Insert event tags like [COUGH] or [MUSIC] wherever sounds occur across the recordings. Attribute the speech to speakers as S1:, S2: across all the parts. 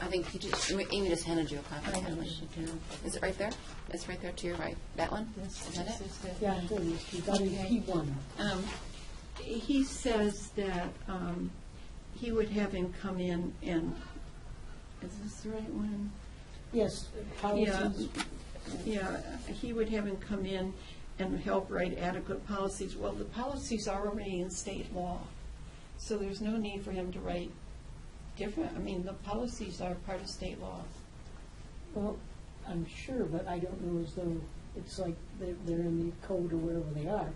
S1: I think he just, Amy- Amy just handed you a copy. of that. Is it right there? It's right there to your right. That one? Is that it?
S2: Yeah, there it is. You got it,
S3: Okay.
S2: he won.
S3: Um, He says that um, he would have him come in and, is this the right one?
S2: Yes,
S3: Yeah,
S2: policies.
S3: yeah, he would have him come in and help write adequate policies. Well, the policies are already in state law, so there's no need for him to write different, I mean, the policies are part of state law.
S2: Well, I'm sure, but I don't know as though it's like they're, they're in the code or wherever they are.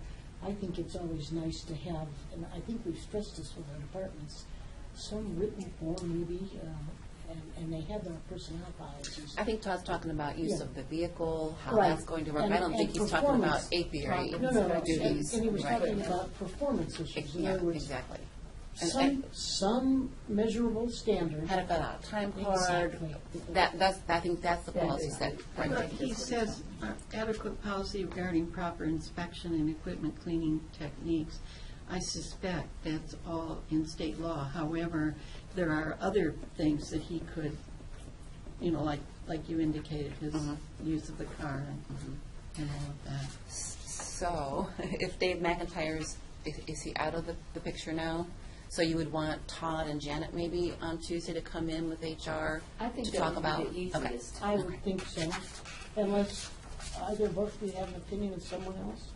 S2: I think it's always nice to have, and I think we've stressed this with our departments, some written form maybe, uh, and, and they have their personnel policies.
S1: I think Todd's talking about use
S2: Yeah.
S1: of the vehicle, how
S2: Right.
S1: that's going to work.
S2: And-
S1: I don't think
S2: and
S1: he's talking about
S2: performance.
S1: apiary
S2: No, no, no, and
S1: duties.
S2: and he was
S1: Right.
S2: talking about performance issues. In
S1: Yeah,
S2: other words,
S1: exactly. And-
S2: some,
S1: and-
S2: some measurable standard.
S1: How to fill out a time card.
S2: Exactly.
S1: That, that's, I think that's the
S2: Yeah.
S1: policy set right there.
S3: But he says uh, adequate policy regarding proper inspection and equipment cleaning techniques. I suspect that's all in state law. However, there are other things that he could, you know, like, like you indicated, his use of the car and- and all of that.
S1: So, [LAUGHS] if Dave McIntyre is, is- is he out of the, the picture now? So you would want Todd and Janet maybe on Tuesday to come in with HR
S4: I think
S1: to
S4: that
S1: talk
S4: would
S1: about?
S4: be the
S1: Okay.
S4: easiest.
S2: I would think so, unless either of us, we have an opinion of someone else.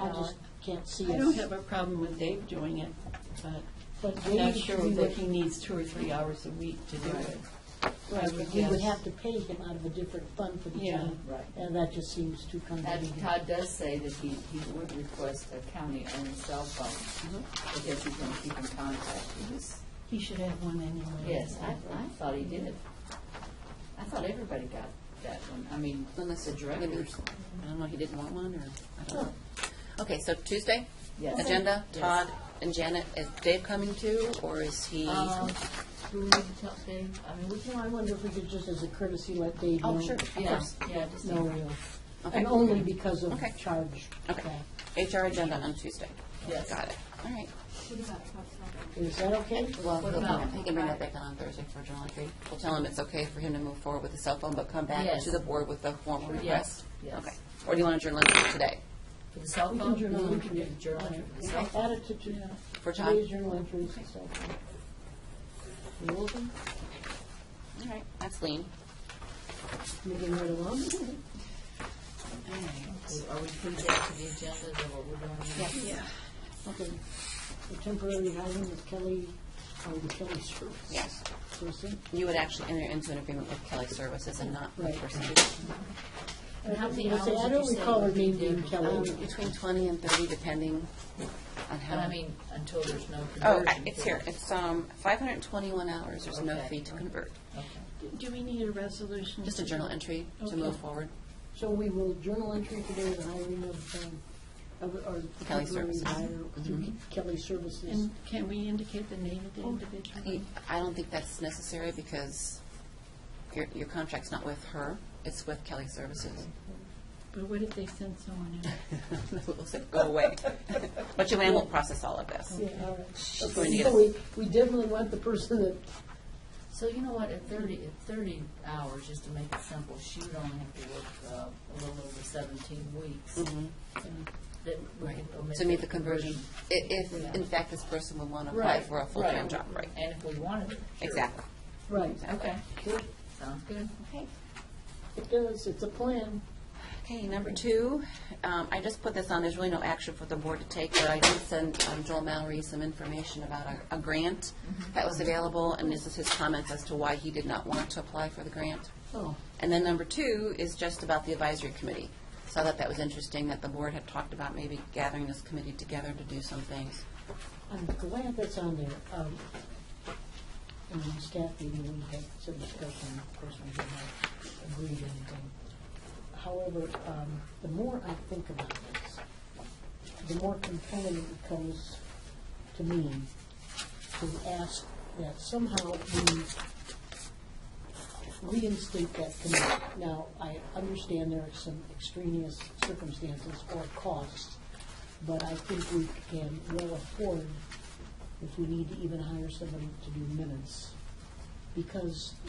S2: I just can't see us.
S3: I don't have a problem with Dave doing it, but
S2: But
S3: I'm not
S2: Dave
S3: sure
S2: we
S3: that
S2: would-
S3: he needs two or three hours a week to do it.
S2: Right,
S3: would
S2: but we would
S3: guess.
S2: have to pay him out of a different fund for the
S3: Yeah.
S2: town.
S4: Right.
S2: And that just seems too
S4: And
S2: convoluted.
S4: Todd does say that he, he would request a county-owned cell phone, because he's gonna keep in contact with us.
S3: Mm-hmm. He should have one anyway.
S4: Yes, I, I thought he did. I thought everybody got that one, I mean,
S1: Unless
S4: the
S1: the
S4: directors.
S1: I don't know, he didn't want one, or, I don't know. Okay, so Tuesday?
S4: Yes.
S1: Agenda,
S4: Yes.
S1: Todd and Janet, is Dave coming too, or is he?
S5: Um, Do we need to tell Dave, I mean, we
S2: Well, I wonder if we could just as a courtesy let Dave know.
S1: Oh, sure, of
S4: Yeah,
S1: course.
S4: yeah, just.
S2: No, we
S1: Okay.
S2: and only because of
S1: Okay.
S2: charge.
S1: Okay. HR agenda on Tuesday?
S4: Yes.
S1: Got it, all right.
S2: Is that okay?
S1: Well,
S4: What
S1: he'll-
S4: about-
S1: he can bring that back on Thursday for July 3. We'll tell him it's okay for him to move forward with the cell phone, but come back
S4: Yes.
S1: to the board with the formal request?
S4: Yes, yes.
S1: Okay. Or do you want to journal it today?
S4: For the cell
S2: We
S4: phone?
S2: can journal
S4: We can
S2: entry.
S4: get journal entry for the cell phone.
S2: Add it to, to
S1: For Todd?
S2: today's journal entries and so forth. You open?
S1: All right, that's lean.
S2: Moving right along.
S5: Are we putting that to the agenda, is that what we're doing?
S3: Yeah.
S2: Okay. The temporary hiring of Kelly, or the Kelly Service.
S1: Yes.
S2: Person.
S1: You would actually enter into an agreement with Kelly Services and not with
S2: Right.
S1: person.
S5: And how many
S2: I say, I
S5: hours
S2: don't
S5: did you say
S2: recall her
S5: would be
S2: name being
S5: different?
S1: Um,
S2: Kelly.
S1: Between 20 and 30, depending on how.
S5: But I mean, until there's no
S1: Oh,
S5: conversion.
S1: I- it's here.
S5: period.
S1: It's um 521 hours. There's no
S5: Okay.
S1: fee to convert.
S3: Do we need a resolution?
S1: Just a journal entry to
S3: Okay.
S1: move forward.
S2: So we will journal entry today, the hiring of, um, of, or. the
S1: Kelly
S2: temporary
S1: Services. Mm-hmm.
S2: hire through Kelly Services.
S3: And can we indicate the name of the individual?
S1: Oh, I I don't think that's necessary because your, your contract's not with her, it's with Kelly Services. [LAUGHS]
S3: But what if they send someone else?
S1: We'll say, Go away.
S5: [LAUGHS]
S1: But Joanne will process Mm-hmm. all of this.
S2: Yeah, all right.
S1: She's going to get
S2: So
S1: us,
S2: we, we definitely want the person that,
S5: So you know what, at thirty, at thirty hours, just to make it simple, she would only have to work uh, a little over seventeen weeks. That we could omit
S1: Mm-hmm. to meet the conversion, i- if in fact this person would want to apply
S5: Right,
S1: for a full-time
S5: right.
S1: job, right?
S5: And if we wanted it. sure.
S1: Exactly.
S2: right,
S5: Okay,
S2: Good.
S5: sounds good.
S1: Okay.
S2: it does, it's a plan.
S1: Okay, number two, um, I just put this on, there's really no action for the board to take, but I did send um, Joel Mallory some information about a- a grant that was available, and this is his comments as to why he did not want to apply for the grant.
S2: Oh,
S1: And then number two is just about the advisory committee. So I thought that was interesting, that the board had talked about maybe gathering this committee together to do some things.
S2: I'm glad that's on there. Um, In the staff meeting, we had some discussion, of course, we didn't have agreed anything. However, um, the more I think about this, the more compelling it becomes to me to ask that somehow we reinstate that committee. Now, I understand there are some extraneous circumstances or costs, but I think we can well afford if we need to even hire somebody to do minutes. Because